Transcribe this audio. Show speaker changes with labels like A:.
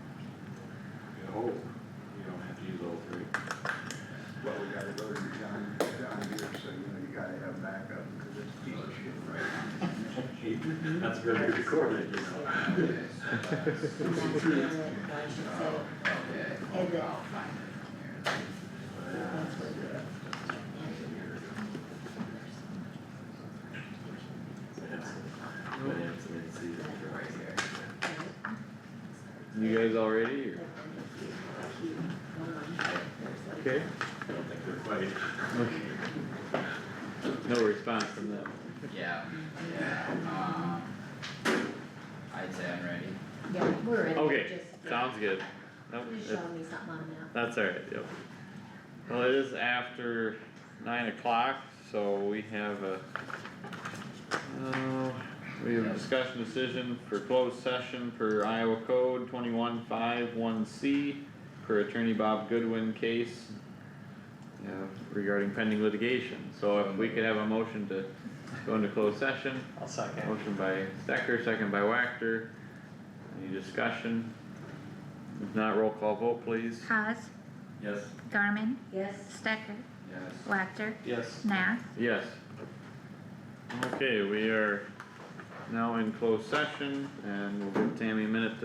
A: whole, oh, you don't have to use all three.
B: Well, we gotta go to the John, John Deere, so you know, you gotta have backup, because it's a piece of shit right now.
A: That's very recorded, you know. But it's an in-season choice.
C: You guys all ready or? Okay,
A: I don't think they're quite,
C: no response from them.
D: Yeah, yeah, um, I'd say I'm ready.
E: Yeah, we're in.
C: Okay,
E: just-
C: sounds good. Nope,
E: You're
C: it-
E: showing me something on
C: that's alright, yep. Well, it is after nine o'clock, so we have a, uh, we have a discussion decision for closed session per Iowa Code twenty-one five one C for Attorney Bob Goodwin case uh, regarding pending litigation. So if we could have a motion to go into closed session.
F: I'll second.
C: Motion by Stecker, second by Wactor. Any discussion? If not, roll call vote please.
G: Haas,
A: yes,
G: Garmin,
E: that. Yes.
G: Stecker,
D: Yes.
G: Wactor,
F: Yes.
G: Nath.
C: Yes. Okay, we are now in closed session and we'll give Tammy a minute to